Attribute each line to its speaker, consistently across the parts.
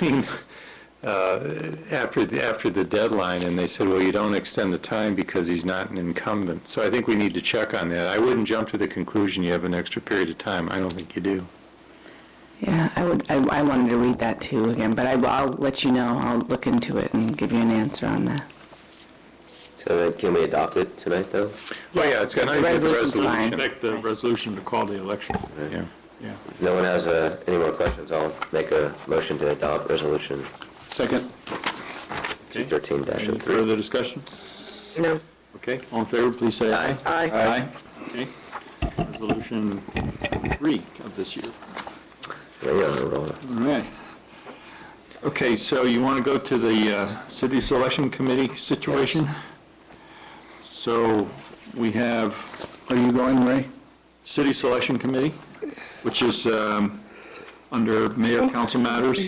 Speaker 1: meeting uh, after, the- after the deadline, and they said, well, you don't extend the time because he's not an incumbent. So I think we need to check on that. I wouldn't jump to the conclusion you have an extra period of time. I don't think you do.
Speaker 2: Yeah, I would, I, I wanted to read that too again, but I, I'll let you know, I'll look into it and give you an answer on that.
Speaker 3: So then can we adopt it tonight, though?
Speaker 1: Well, yeah, it's got to be the
Speaker 2: Resolution's fine.
Speaker 1: resolution.
Speaker 4: Expect the resolution to call the election.
Speaker 1: Yeah.
Speaker 4: Yeah.
Speaker 3: If no one has uh, any more questions, I'll make a motion to adopt Resolution
Speaker 4: Second. Okay.
Speaker 3: 13-03.
Speaker 4: Any further discussion?
Speaker 5: No.
Speaker 4: Okay, all in favor, please say aye.
Speaker 5: Aye.
Speaker 4: Aye. Okay. Resolution three of this year.
Speaker 3: Yeah, you're on a roll.
Speaker 4: All right. Okay, so you want to go to the uh, city selection committee situation? So we have, are you going, Ray? City selection committee, which is um, under mayor council matters,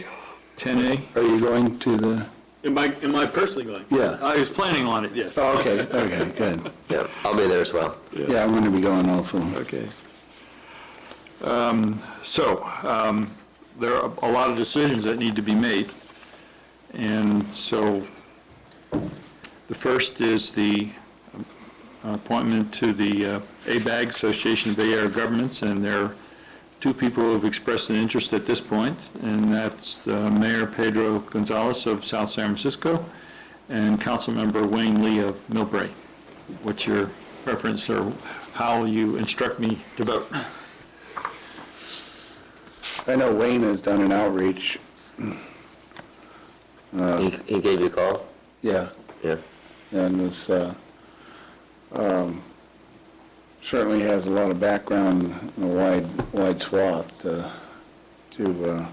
Speaker 4: 10A.
Speaker 6: Are you going to the,
Speaker 4: Am I, am I personally going?
Speaker 6: Yeah.
Speaker 4: I was planning on it, yes.
Speaker 6: oh, okay, okay, good.
Speaker 3: Yeah, I'll be there as well.
Speaker 6: Yeah, I'm going to be going also.
Speaker 4: Okay. Um, So, um, there are a lot of decisions that need to be made, and so the first is the appointment to the uh, ABAG, Association of Bay Area Governments, and there are two people who have expressed an interest at this point, and that's uh, Mayor Pedro Gonzalez of South San Francisco and Councilmember Wayne Lee of Millbrae. What's your preference or how you instruct me to vote?
Speaker 6: I know Wayne has done an outreach.
Speaker 4: Uh,
Speaker 3: He he gave you a call?
Speaker 6: Yeah.
Speaker 3: Yeah.
Speaker 6: And was, uh, um, certainly has a lot of background and a wide, wide swath uh, to uh,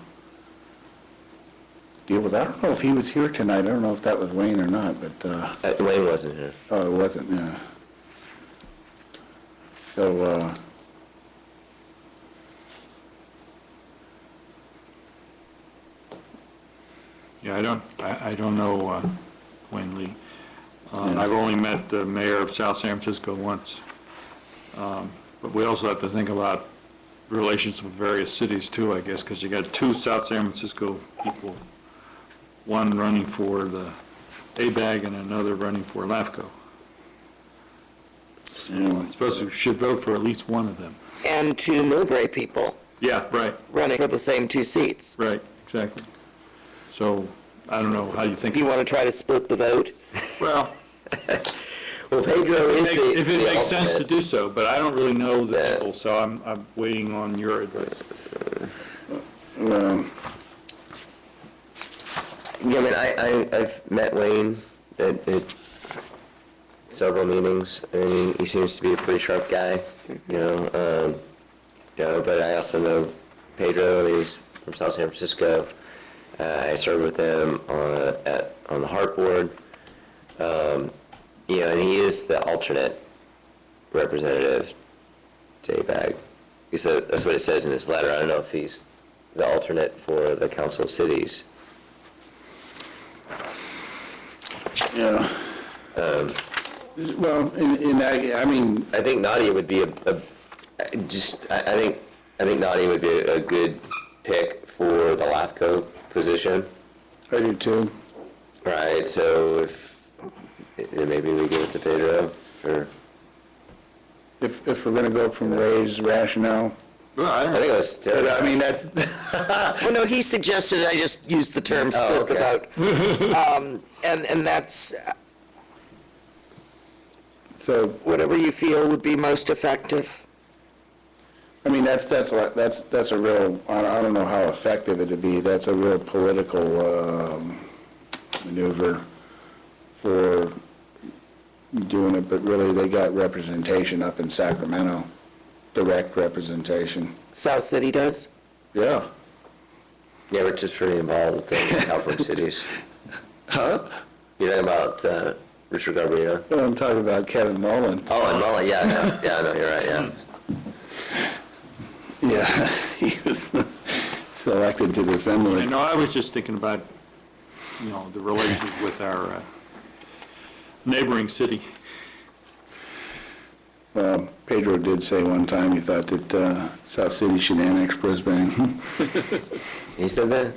Speaker 6: deal with. I don't know if he was here tonight. I don't know if that was Wayne or not, but, uh,
Speaker 3: Uh, Wayne wasn't here.
Speaker 6: oh, it wasn't, yeah. So, uh,
Speaker 4: Yeah, I don't, I, I don't know uh, Wayne Lee. Um, I've only met the mayor of South San Francisco once. Um, But we also have to think about relations with various cities too, I guess, because you got two South San Francisco people, one running for the ABAG and another running for LAFCO.
Speaker 6: anyway.
Speaker 4: Supposed to, should vote for at least one of them.
Speaker 5: And two Millbrae people
Speaker 4: Yeah, right,
Speaker 5: running for the same two seats.
Speaker 4: right, exactly. So, I don't know how you think.
Speaker 5: If you want to try to split the vote,
Speaker 4: Well,
Speaker 3: Well, Pedro is
Speaker 4: Make-
Speaker 3: the...
Speaker 4: If it
Speaker 3: the
Speaker 4: makes sense to
Speaker 3: alternate.
Speaker 4: do so, but I don't really know the
Speaker 3: Yeah.
Speaker 4: people, so I'm, I'm waiting on your advice.
Speaker 6: Um,
Speaker 3: Yeah, I mean, I, I, I've met Wayne at, at several meetings, and he seems to be a pretty sharp guy, you know, um, you know, but I also know Pedro, he's from South San Francisco. Uh, I served with him on, a- at, on the Hart Board. Um, you know, and he is the alternate representative to ABAG. He said, that's what it says in his letter. I don't know if he's the alternate for the Council of Cities.
Speaker 6: Yeah. Well, in, in, that- I mean,
Speaker 3: I think Nadia would be a, a I just, I, I think, I think Nadia would be a, a good pick for the LAFCO position,
Speaker 6: I do too.
Speaker 3: right? So if, eh, maybe we give it to Pedro, or,
Speaker 6: If, if we're going to go from Ray's rationale,
Speaker 4: Well, I
Speaker 3: I
Speaker 4: don't,
Speaker 3: think it was
Speaker 6: but
Speaker 3: Terry.
Speaker 6: I mean, that's,
Speaker 5: well, no, he suggested I just use the term split the
Speaker 3: okay.
Speaker 5: vote. Um, And, and that's uh,
Speaker 6: so,
Speaker 5: whatever you feel would be most effective.
Speaker 6: I mean, that's, that's, a lot- that's, that's a real, I don't- I don't know how effective it'd be, that's a real political um, maneuver for doing it, but really, they got representation up in Sacramento, direct representation.
Speaker 5: South City does.
Speaker 6: Yeah.
Speaker 3: Yeah, we're just pretty involved with the California cities.
Speaker 6: Huh?
Speaker 3: You're talking about, uh, Richard Garbarino?
Speaker 6: Well, I'm talking about Kevin Mullen.
Speaker 3: Oh, and Mullen, yeah, no, yeah, no, you're right, yeah.
Speaker 6: Hmm. Yeah, he was selected to the
Speaker 4: I
Speaker 6: Assembly.
Speaker 4: know, I was just thinking about, you know, the relations with our uh, neighboring city.
Speaker 6: Um, Pedro did say one time he thought that uh, South City should annex Brisbane.
Speaker 3: He said that?